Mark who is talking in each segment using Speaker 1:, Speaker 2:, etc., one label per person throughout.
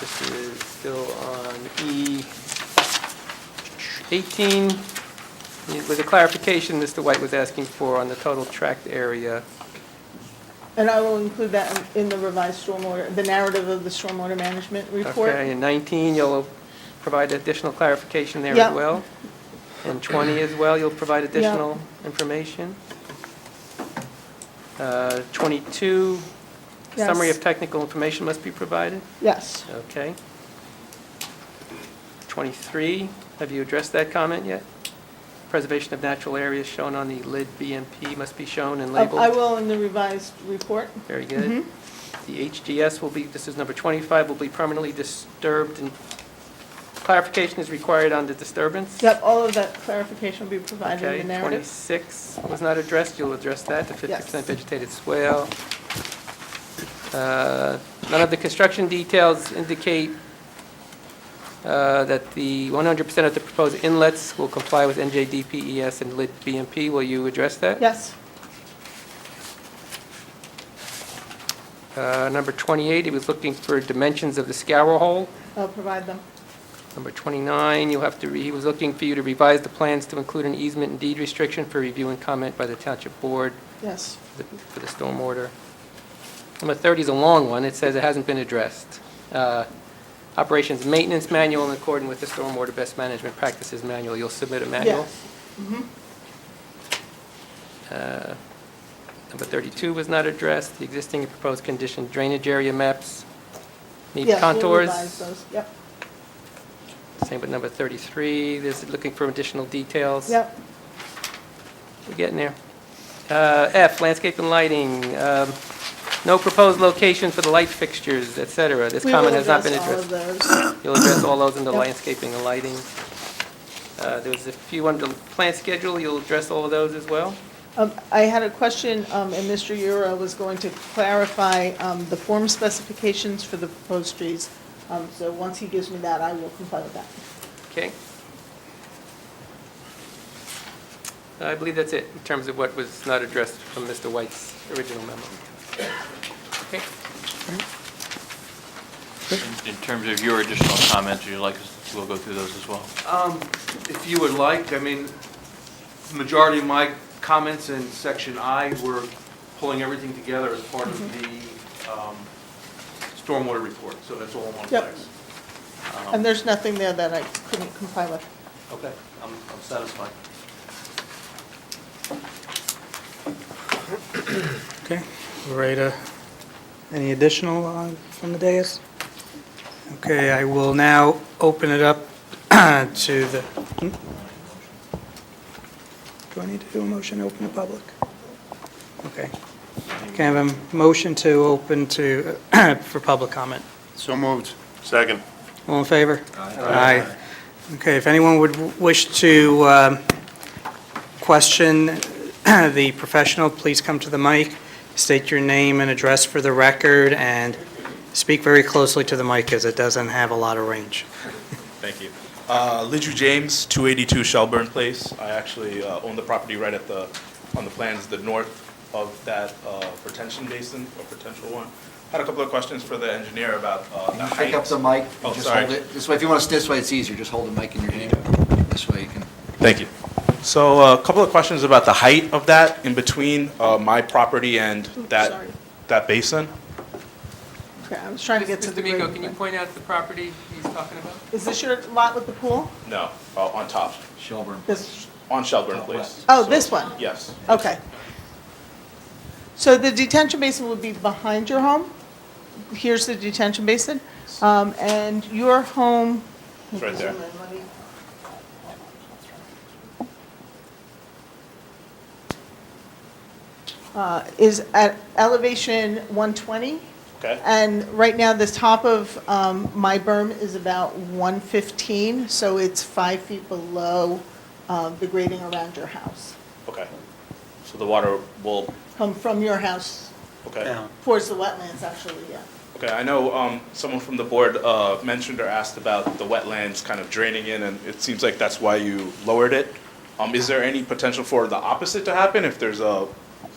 Speaker 1: This is still on E E18. With a clarification Mr. White was asking for on the total tract area.
Speaker 2: And I will include that in in the revised stormwater, the narrative of the stormwater management report.
Speaker 1: Okay, and 19, you'll provide additional clarification there as
Speaker 2: Yeah.
Speaker 1: well? And 20 as well, you'll provide additional information? Uh, 22, summary
Speaker 2: Yes.
Speaker 1: of technical information must be provided?
Speaker 2: Yes.
Speaker 1: Okay. 23, have you addressed that comment yet? Preservation of natural areas shown on the lid BMP must be shown and labeled?
Speaker 2: Oh, I will Mm-hmm. in the revised report.
Speaker 1: Very good. The HGS will be, this is number 25, will be permanently disturbed, and clarification is required on the disturbance?
Speaker 2: Yep, all of that clarification will be provided
Speaker 1: Okay,
Speaker 2: in the narrative.
Speaker 1: 26 was not addressed, you'll address that, the 50%
Speaker 2: Yes.
Speaker 1: vegetated swale. Uh, None of the construction details indicate uh, that the 100% of the proposed inlets will comply with NJDPES E and LID BMP. Will you address that?
Speaker 2: Yes,
Speaker 1: Uh, Number 28, he was looking for dimensions of the scour hole.
Speaker 2: I'll provide them.
Speaker 1: Number 29, you'll have to, re- he was looking for you to revise the plans to include an easement and deed restriction for review and comment by the township board
Speaker 2: Yes.
Speaker 1: for the- for the stormwater. Number 30 is a long one, it says it hasn't been addressed. Uh, Operations Maintenance Manual in accordance with the Stormwater Best Management Practices Manual, you'll submit a manual. Mm-hmm.
Speaker 2: Yes.
Speaker 1: Uh, Number 32 was not addressed, the existing and proposed condition drainage area maps need
Speaker 2: Yes, we'll
Speaker 1: contours.
Speaker 2: revise those. Yep,
Speaker 1: Same with number 33, there's looking for additional details.
Speaker 2: yep.
Speaker 1: We're getting there. Uh, F, landscape and lighting, um, no proposed location for the light fixtures, et cetera. This
Speaker 2: We
Speaker 1: comment
Speaker 2: will
Speaker 1: has not been
Speaker 2: address
Speaker 1: addressed.
Speaker 2: all of those.
Speaker 1: You'll address all those in the
Speaker 2: Yep.
Speaker 1: landscaping and lighting. Uh, There was a few under plant schedule, you'll address all of those as well?
Speaker 2: Um, I had a question, um, and Mr. Euro was going to clarify um, the form specifications for the proposed trees. Um, So once he gives me that, I will comply with that.
Speaker 1: Okay. I believe that's it, in terms of what was not addressed from Mr. White's original memo. Okay.
Speaker 3: In terms of your additional comments, would you like us, we'll go through those as well.
Speaker 4: Um, If you would like, I mean, the majority of my comments in section I were pulling everything together as part of the um, stormwater report, so that's all in one
Speaker 2: Yep.
Speaker 4: place.
Speaker 2: And there's nothing there that I couldn't comply with.
Speaker 4: Okay, I'm I'm satisfied.
Speaker 5: Okay, we're ready to, any additional uh, from the dais? Okay, I will now open it up to the, hmm? do I need to do a motion to open the public? Okay. Can I have a motion to open to, for public comment?
Speaker 6: So moved. Second.
Speaker 5: All in favor? Aye. Okay, if anyone would w- wish to um, question the professional, please come to the mic, state your name and address for the record, and speak very closely to the mic, as it doesn't have a lot of range.
Speaker 7: Thank you. Uh, Lidju James, 282 Shelburne Place. I actually uh, own the property right at the, on the plans, the north of that uh, retention basin, or potential one. Had a couple of questions for the engineer about uh, the
Speaker 8: Can you
Speaker 7: height.
Speaker 8: pick up the mic?
Speaker 7: Oh,
Speaker 8: Just
Speaker 7: sorry.
Speaker 8: hold it. This way, if you want to, this way it's easier, just hold the mic in your hand. This way you can.
Speaker 7: Thank you. So uh, a couple of questions about the height of that in between uh, my property and
Speaker 2: Oops,
Speaker 7: that,
Speaker 2: sorry.
Speaker 7: that basin.
Speaker 2: Okay, I was trying to get to the.
Speaker 1: Mr. Miko,
Speaker 2: root.
Speaker 1: can you point out the property he's talking about?
Speaker 2: Is this your lot with the pool?
Speaker 7: No, uh, on top,
Speaker 8: Shelburne.
Speaker 2: This,
Speaker 7: on Shelburne
Speaker 8: Top
Speaker 7: Place.
Speaker 2: oh,
Speaker 7: So-
Speaker 2: this one?
Speaker 7: Yes.
Speaker 2: Okay. So the detention basin would be behind your home. Here's the detention basin. Um, And your home.
Speaker 7: It's right there.
Speaker 2: Uh, Is at elevation 120.
Speaker 7: Okay.
Speaker 2: And right now, the top of um, my berm is about 115, so it's five feet below uh, the grading around your house,
Speaker 7: Okay. So the water will,
Speaker 2: Come from your house
Speaker 7: okay.
Speaker 2: towards the wetlands, actually, yeah.
Speaker 7: Okay, I know um, someone from the board uh, mentioned or asked about the wetlands kind of draining in, and it seems like that's why you lowered it. Um, Is there any potential for the opposite to happen if there's a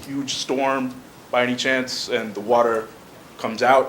Speaker 7: huge storm by any chance and the water comes out